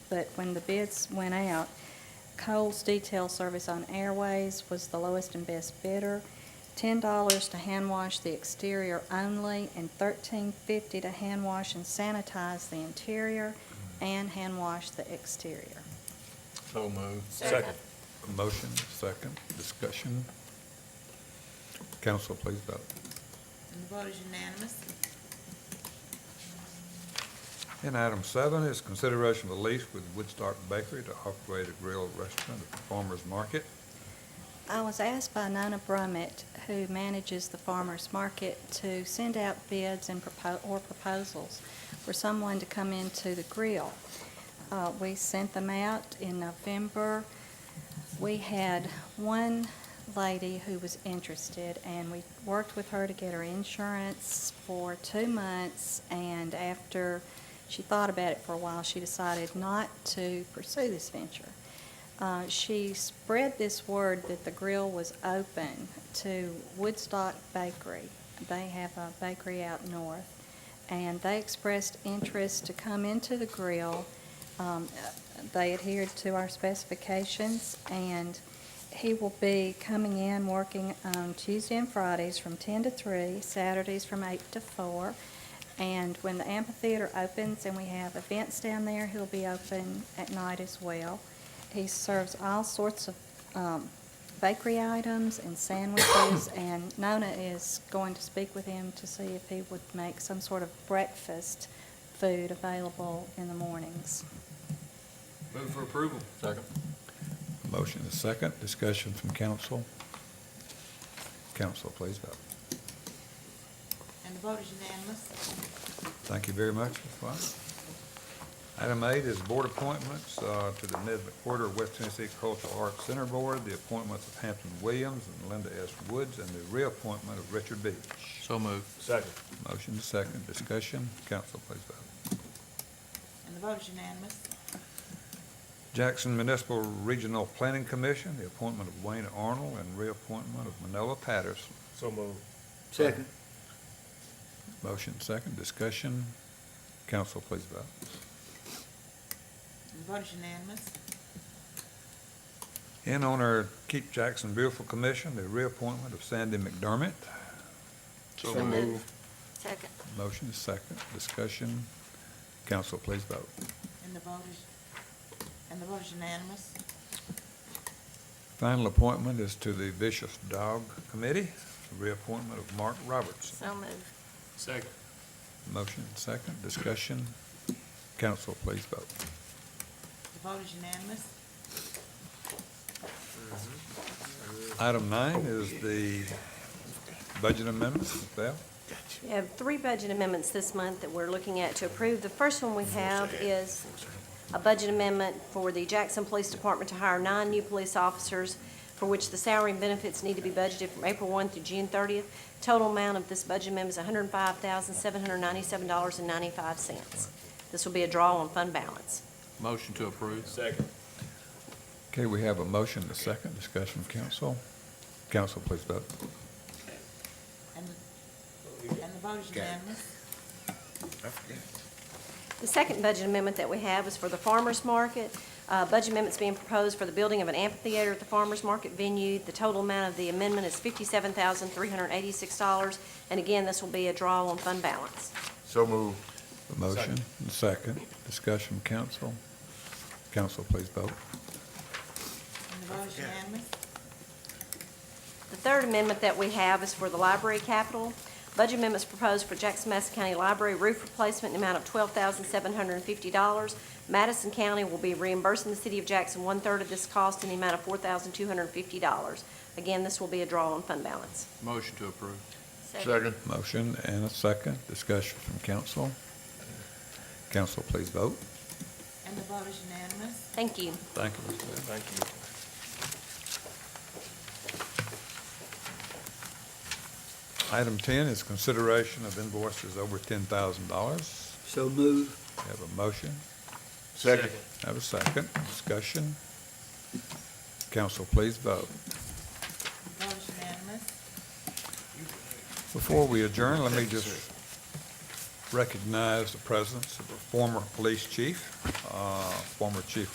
but when the bids went out, Coles Detail Service on Airways was the lowest and best bidder. Ten dollars to hand wash the exterior only, and thirteen fifty to hand wash and sanitize the interior, and hand wash the exterior. So moved. Second. Motion, second, discussion. Council, please vote. And the vote is unanimous. And item seven is consideration of a lease with Woodstock Bakery to operate a grill restaurant at the Farmers Market. I was asked by Nina Brummett, who manages the farmer's market, to send out bids and propo- or proposals for someone to come into the grill. Uh, We sent them out in November. We had one lady who was interested, and we worked with her to get her insurance for two months, and after she thought about it for a while, she decided not to pursue this venture. Uh, she spread this word that the grill was open to Woodstock Bakery. They have a bakery out north, and they expressed interest to come into the grill. Um, uh, they adhered to our specifications, and he will be coming in working on Tuesday and Fridays from 10 to 3, Saturdays from 8 to 4. And when the amphitheater opens and we have events down there, he'll be open at night as well. He serves all sorts of um, bakery items and sandwiches, and Nona is going to speak with him to see if he would make some sort of breakfast food available in the mornings. Move for approval. Second. Motion is second, discussion from council. Council, please vote. And the vote is unanimous. Thank you very much, Ms. White. Item eight is board appointments uh, to the Mid-Quarter West Tennessee Cultural Arts Center Board, the appointments of Hampton Williams and Linda S. Woods, and the reappointment of Richard Beach. So moved. Second. Motion is second, discussion, council, please vote. And the vote is unanimous. Jackson Municipal Regional Planning Commission, the appointment of Wayne Arnold and reappointment of Manella Patterson. So moved. Second. Motion second, discussion, council, please vote. And the vote is unanimous. In on our Keep Jackson Beautiful Commission, the reappointment of Sandy McDermott. So moved. Second. Motion is second, discussion, council, please vote. And the vote is, and the vote is unanimous. Final appointment is to the Vicious Dog Committee, the reappointment of Mark Robertson. So moved. Second. Motion second, discussion, council, please vote. The vote is unanimous. Item nine is the budget amendments, Ms. Bell. We have three budget amendments this month that we're looking at to approve. The first one we have is a budget amendment for the Jackson Police Department to hire nine new police officers, for which the salary and benefits need to be budgeted from April 1 through June 30th. Total amount of this budget amendment is $105,797.95. This will be a draw on fund balance. Motion to approve. Second. Okay, we have a motion, a second, discussion from council. Council, please vote. And, and the vote is unanimous. The second budget amendment that we have is for the farmer's market. Uh, Budget amendment's being proposed for the building of an amphitheater at the farmer's market venue. The total amount of the amendment is fifty-seven thousand, three hundred and eighty-six dollars. And again, this will be a draw on fund balance. So moved. A motion, and second, discussion from council. Council, please vote. And the vote is unanimous. The third amendment that we have is for the library capital. Budget amendments proposed for Jackson-Madison County Library roof replacement in the amount of twelve thousand seven hundred and fifty dollars. Madison County will be reimbursing the city of Jackson one-third of this cost in the amount of four thousand two hundred and fifty dollars. Again, this will be a draw on fund balance. Motion to approve. Second. Motion and a second, discussion from council. Council, please vote. And the vote is unanimous. Thank you. Thank you, Ms. Bell. Thank you. Item ten is consideration of invoices over ten thousand dollars. So moved. We have a motion, Second. have a second, discussion. Council, please vote. The vote is unanimous. Before we adjourn, let me just recognize the presence of a former police chief, uh, uh, former Chief